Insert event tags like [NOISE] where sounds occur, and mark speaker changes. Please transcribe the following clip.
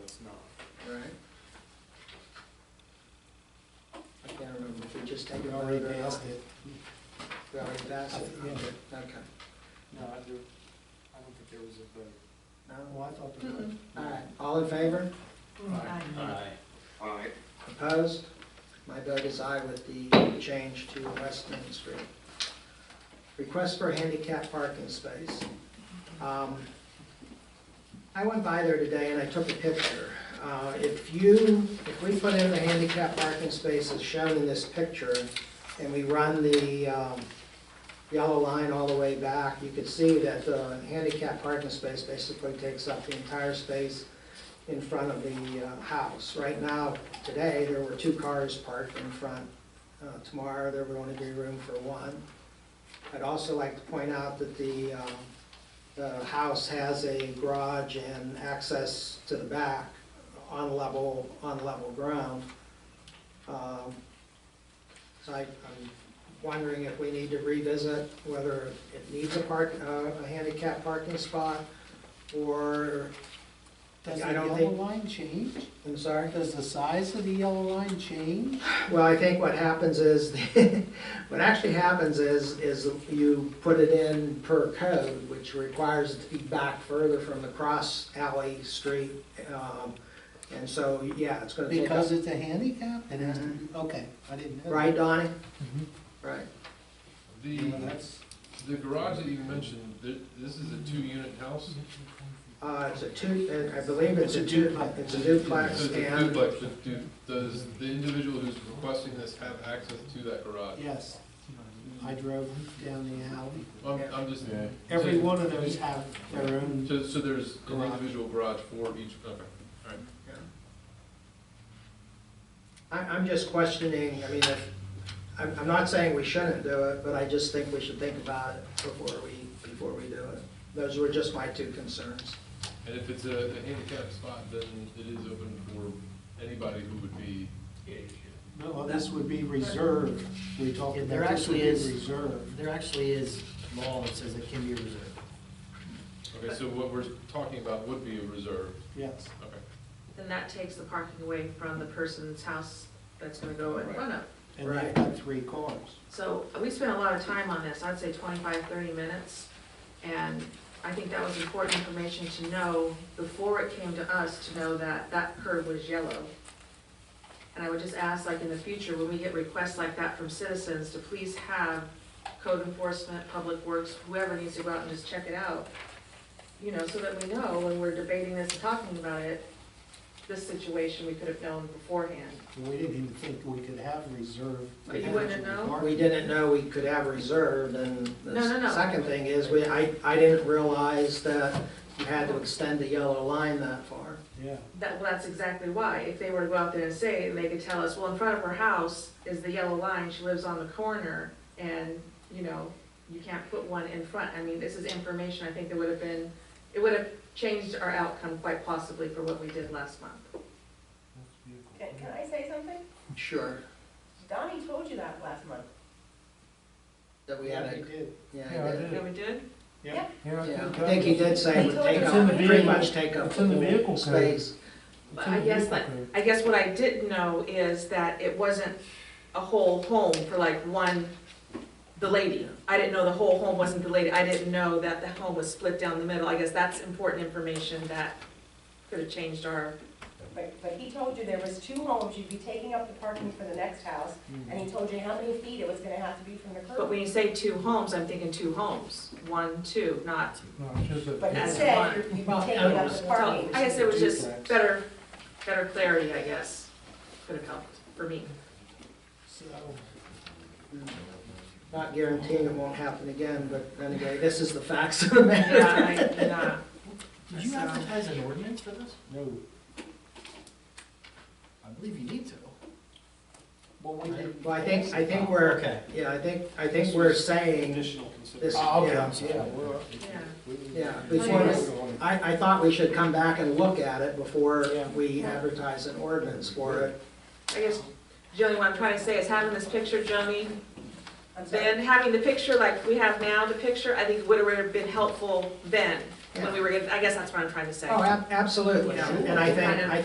Speaker 1: just take
Speaker 2: We
Speaker 1: a
Speaker 2: already
Speaker 1: vote or
Speaker 2: passed
Speaker 1: not?
Speaker 2: it.
Speaker 1: We already passed it?
Speaker 2: Yeah.
Speaker 1: Okay.
Speaker 3: No, I do, I don't think there was a vote.
Speaker 1: No?
Speaker 2: Oh, I thought there was.
Speaker 1: All right, all in favor?
Speaker 4: Aye.
Speaker 5: Aye.
Speaker 1: Opposed? My vote is aye with the change to West Main Street. Request for handicap parking space. Um, I went by there today and I took a picture. Uh, If you, if we put in the handicap parking spaces shown in this picture, and we run the um, yellow line all the way back, you could see that the handicap parking space basically takes up the entire space in front of the uh, house. Right now, today, there were two cars parked in front. Uh, Tomorrow, there would only be room for one. I'd also like to point out that the, um, the house has a garage and access to the back on level, on level ground. Um, So I, I'm wondering if we need to revisit whether it needs a park, uh, a handicap parking spot, or,
Speaker 2: Does the
Speaker 1: I don't
Speaker 2: yellow
Speaker 1: think-
Speaker 2: line change?
Speaker 1: I'm sorry?
Speaker 2: Does the size of the yellow line change?
Speaker 1: Well, I think what happens is, [LAUGHS] what actually happens is, is you put it in per code, which requires it to be back further from the cross alley street. um, And so, yeah, it's gonna take up, Mm-hmm.
Speaker 2: Because it's a handicap, it has to be, okay, I didn't know. that.
Speaker 1: right, Donnie? Right.
Speaker 6: The,
Speaker 2: Yeah, that's-
Speaker 6: the garage that you mentioned, th- this is a two-unit house?
Speaker 1: Uh, it's a two, I believe it's a two, it's a duplex
Speaker 6: So it's a
Speaker 1: and,
Speaker 6: duplex, but do, does the individual who's requesting this have access to that garage?
Speaker 2: Yes. I drove down the alley.
Speaker 6: I'm, I'm just.
Speaker 2: Every one of those have their own,
Speaker 6: So, so there's an
Speaker 2: Garage.
Speaker 6: individual garage for each, okay, alright.
Speaker 1: I, I'm just questioning, I mean, if, I'm, I'm not saying we shouldn't do it, but I just think we should think about it before we, before we do it. Those were just my two concerns.
Speaker 6: And if it's a a handicapped spot, then it is open for anybody who would be.
Speaker 2: well, this would be reserved, we talked
Speaker 4: Yeah,
Speaker 2: about.
Speaker 4: there
Speaker 2: this would
Speaker 4: actually
Speaker 2: be
Speaker 4: is-
Speaker 2: Reserved.
Speaker 4: There actually is law that says it can be reserved.
Speaker 6: Okay, so what we're talking about would be a reserve,
Speaker 2: Yes.
Speaker 6: okay.
Speaker 7: Then that takes the parking away from the person's house that's gonna go in front of.
Speaker 2: And
Speaker 1: Right.
Speaker 2: they've got three cars.
Speaker 7: So we spent a lot of time on this, I'd say 25, 30 minutes. And I think that was important information to know before it came to us, to know that that curb was yellow. And I would just ask, like, in the future, when we get requests like that from citizens, to please have code enforcement, public works, whoever needs to go out and just check it out. You know, so that we know when we're debating this and talking about it, this situation, we could have known beforehand.
Speaker 2: We didn't even think we could have reserved.
Speaker 7: But you wouldn't know?
Speaker 2: parking.
Speaker 1: We didn't know we could have reserved, and
Speaker 7: No, no,
Speaker 1: the
Speaker 7: no.
Speaker 1: second thing is, we, I, I didn't realize that you had to extend the yellow line that far.
Speaker 2: Yeah.
Speaker 7: That, well, that's exactly why. If they were to go out there and say, it, and they could tell us, well, in front of her house is the yellow line, she lives on the corner, and, you know, you can't put one in front. I mean, this is information, I think that would have been, it would have changed our outcome quite possibly for what we did last month.
Speaker 8: Can, can I say something?
Speaker 1: Sure.
Speaker 8: Donnie told you that last month.
Speaker 1: That we had
Speaker 2: We
Speaker 1: a,
Speaker 2: did.
Speaker 1: yeah, I did.
Speaker 7: Yeah, we did?
Speaker 1: Yeah, I think uh, he did say it would take
Speaker 8: It's in
Speaker 1: up,
Speaker 8: the
Speaker 1: pretty
Speaker 8: vehicle-
Speaker 1: much take up
Speaker 9: it's in the
Speaker 1: the whole
Speaker 9: vehicle code.
Speaker 1: space.
Speaker 7: But I guess, like, I guess what I didn't know is that it wasn't a whole home for like one, the lady. I didn't know the whole home wasn't the lady. I didn't know that the home was split down the middle. I guess that's important information that could have changed our,
Speaker 8: But, but he told you there was two homes, you'd be taking up the parking for the next house, and he told you how many feet it was gonna have to be from the
Speaker 7: but when you
Speaker 8: curb.
Speaker 7: say two homes, I'm thinking two homes. One, two, not,
Speaker 8: But he
Speaker 7: As
Speaker 8: said
Speaker 7: one.
Speaker 8: you're- you'd be taking up the
Speaker 7: so
Speaker 8: parking.
Speaker 7: I guess it was just
Speaker 2: Duplex.
Speaker 7: better, better clarity, I guess, could have helped for me.
Speaker 2: So,
Speaker 1: Not guaranteeing it won't happen again, but anyway, this is the facts of the matter.
Speaker 7: Yeah, I, yeah.
Speaker 4: Did you
Speaker 7: So-
Speaker 4: advertise an ordinance for this?
Speaker 2: no,
Speaker 4: I believe you need to.
Speaker 2: well, we didn't.
Speaker 1: Well, I think, I think we're,
Speaker 4: Okay.
Speaker 1: yeah, I think, I think we're saying
Speaker 3: Additional
Speaker 1: this,
Speaker 3: consideration.
Speaker 4: Oh, okay,
Speaker 1: yeah.
Speaker 4: I'm sorry.
Speaker 2: Yeah, we're.
Speaker 7: Yeah.
Speaker 1: Yeah,
Speaker 2: we-
Speaker 1: before, I, I thought we should come back and look at it before we advertise an ordinance for it.
Speaker 7: I guess, Joni, what I'm trying to say is having this picture, Joni,
Speaker 8: I'm sorry.
Speaker 7: Then having the picture like we have now, the picture, I think would have been
Speaker 8: Oh,
Speaker 7: helpful then, when we were, getting- I guess that's what I'm trying to say.
Speaker 1: Oh, ab- absolutely, and I think, I